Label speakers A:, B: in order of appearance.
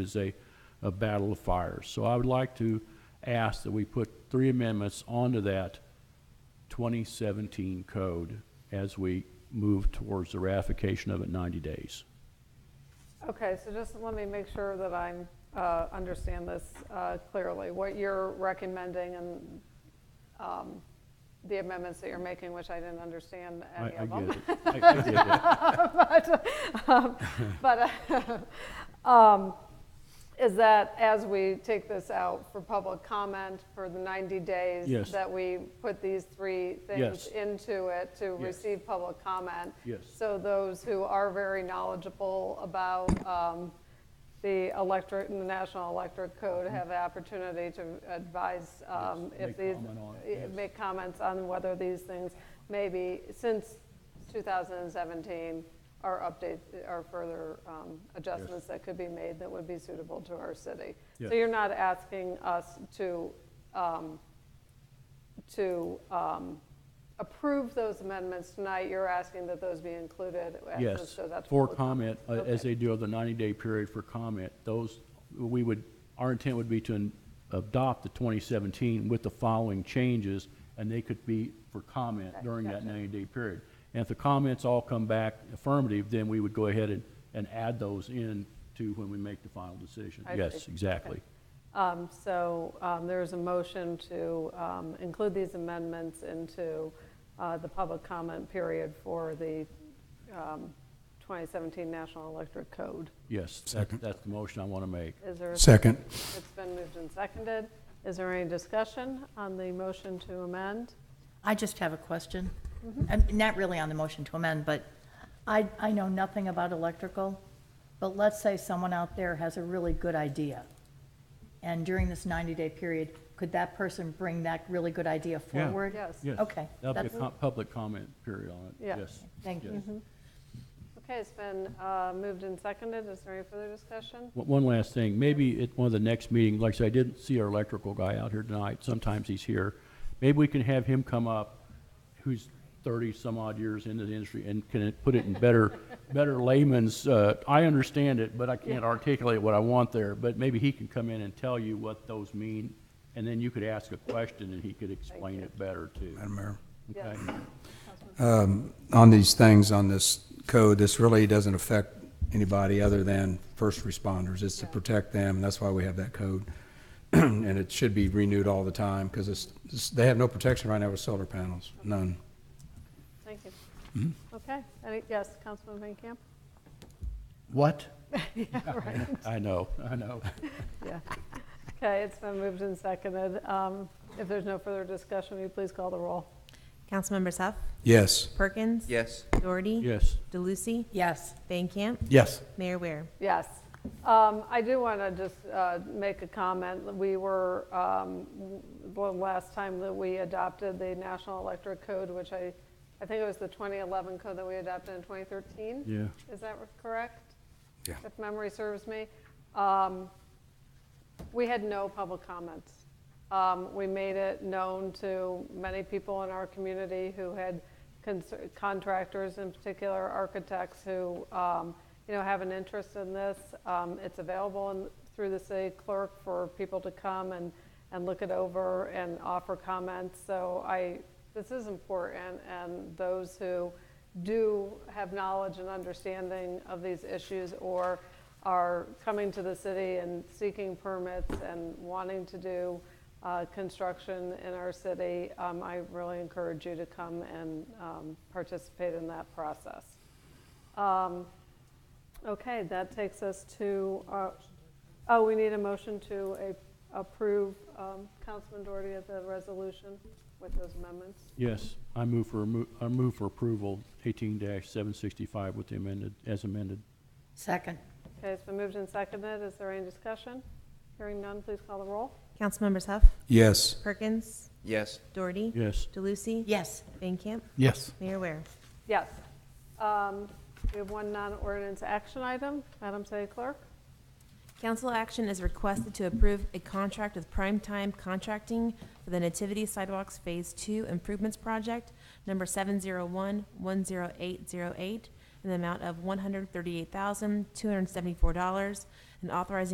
A: is a, a battle of fires. So I would like to ask that we put three amendments onto that 2017 code as we move towards the ratification of it 90 days.
B: Okay, so just let me make sure that I'm, uh, understand this uh, clearly. What you're recommending and um, the amendments that you're making, which I didn't understand
A: I
B: any
A: I
B: of
A: get
B: them.
A: it. I I get it.
B: But uh, um, is that as we take this out for public comment for the 90 days?
A: Yes.
B: That we put these three
A: Yes.
B: things into it to receive public comment?
A: Yes.
B: So those who are very knowledgeable about um, the electric, the National Electric Code have the opportunity to advise um,
A: Mm-hmm. Yes,
B: if
A: make
B: these.
A: comment on it,
B: eh,
A: yes.
B: Make comments on whether these things maybe, since 2017, are updates, are further um, adjustments that could be made that would be suitable to our city. So
A: Yes.
B: you're not asking us to, um, to um, approve those amendments tonight, you're asking that those be included as this
A: Yes,
B: goes out to
A: for
B: public
A: comment, uh, as
B: Okay.
A: they do of the 90-day period for comment, those, we would, our intent would be to in- adopt the 2017 with the following changes, and they could be for comment during that 90-day period. And if the comments all come back affirmative, then we would go ahead and, and add those in to when we make the final decision.
B: I see.
A: Yes,
B: Okay.
A: exactly.
B: Um, So um, there is a motion to um, include these amendments into uh, the public comment period for the um, 2017 National Electric Code.
A: Yes, that-
C: Second.
A: that's the motion I want to make.
B: Is there,
C: Second.
B: it's been moved and seconded. Is there any discussion on the motion to amend?
D: I just have a question. Um, Not really on the motion to amend, but I, I know nothing about electrical, but let's say someone out there has a really good idea. And during this 90-day period, could that person bring that really good idea
A: Yeah.
D: forward?
B: Yes.
A: Yes.
D: Okay.
A: That'll be a
D: that's-
A: com- public comment period on it,
B: Yeah.
A: yes.
D: Thank
A: yes.
D: you.
B: Okay, it's been uh, moved and seconded. Is there any further discussion?
A: One- One last thing, maybe at one of the next meetings, like I said, I didn't see our electrical guy out here tonight, sometimes he's here. Maybe we can have him come up, who's thirty-some odd years into the industry, and can put it in better, better layman's, uh, I understand it, but I can't articulate what I want there, but maybe he can come in and tell you what those mean, and then you could ask a question and he could explain it better too.
C: Madam Mayor,
B: Yes.
A: Okay?
C: on these things, on this code, this really doesn't affect anybody other than first responders. It's to protect them, that's why we have that code. And it should be renewed all the time, because it's, it's- they have no protection right now with solar panels, none.
B: Thank you. Okay, Any- yes, Councilman Van Camp?
A: What? I know, I know.
B: Yeah. Okay, it's been moved and seconded. Um, If there's no further discussion, will you please call the roll?
E: Councilmember Huff,
C: Yes.
E: Perkins.
F: Yes.
E: Doherty.
A: Yes.
E: DeLucy.
D: Yes,
E: Van Camp.
C: Yes.
E: Mayor Ware.
B: Yes. Um, I do want to just uh, make a comment. We were, um, w- the last time that we adopted the National Electric Code, which I, I think it was the 2011 code that we adopted in 2013?
A: Yeah.
B: Is that correct?
C: Yeah.
B: If memory serves me. Um, We had no public comments. Um, We made it known to many people in our community who had concer- contractors, in particular architects, who, um, you know, have an interest in this. Um, It's available in- through the city clerk for people to come and, and look it over and offer comments. So I, this is important, and those who do have knowledge and understanding of these issues or are coming to the city and seeking permits and wanting to do uh, construction in our city, um, I really encourage you to come and um, participate in that process. Um, Okay, that takes us to, our- oh, we need a motion to a- approve um, Councilman Doherty of the resolution with those amendments.
A: Yes, I move for, remo- I move for approval eighteen seven sixty-five with the amended, as amended.
D: second,
B: Okay, it's been moved and seconded. Is there any discussion? Hearing none, please call the roll.
E: Councilmembers Huff,
C: Yes.
E: Perkins.
F: Yes.
E: Doherty.
A: Yes.
E: DeLucy.
D: yes.
E: Van Camp.
C: Yes.
E: Mayor Ware.
B: Yes. Um, We have one non-ordinance action item. Madam City Clerk?
E: Council action is requested to approve a contract with Prime Time Contracting for the Nativity Sidewalks Phase Two Improvements Project, number seven zero one one zero eight zero eight, in the amount of one hundred thirty-eight thousand, two hundred seventy-four dollars, and authorizing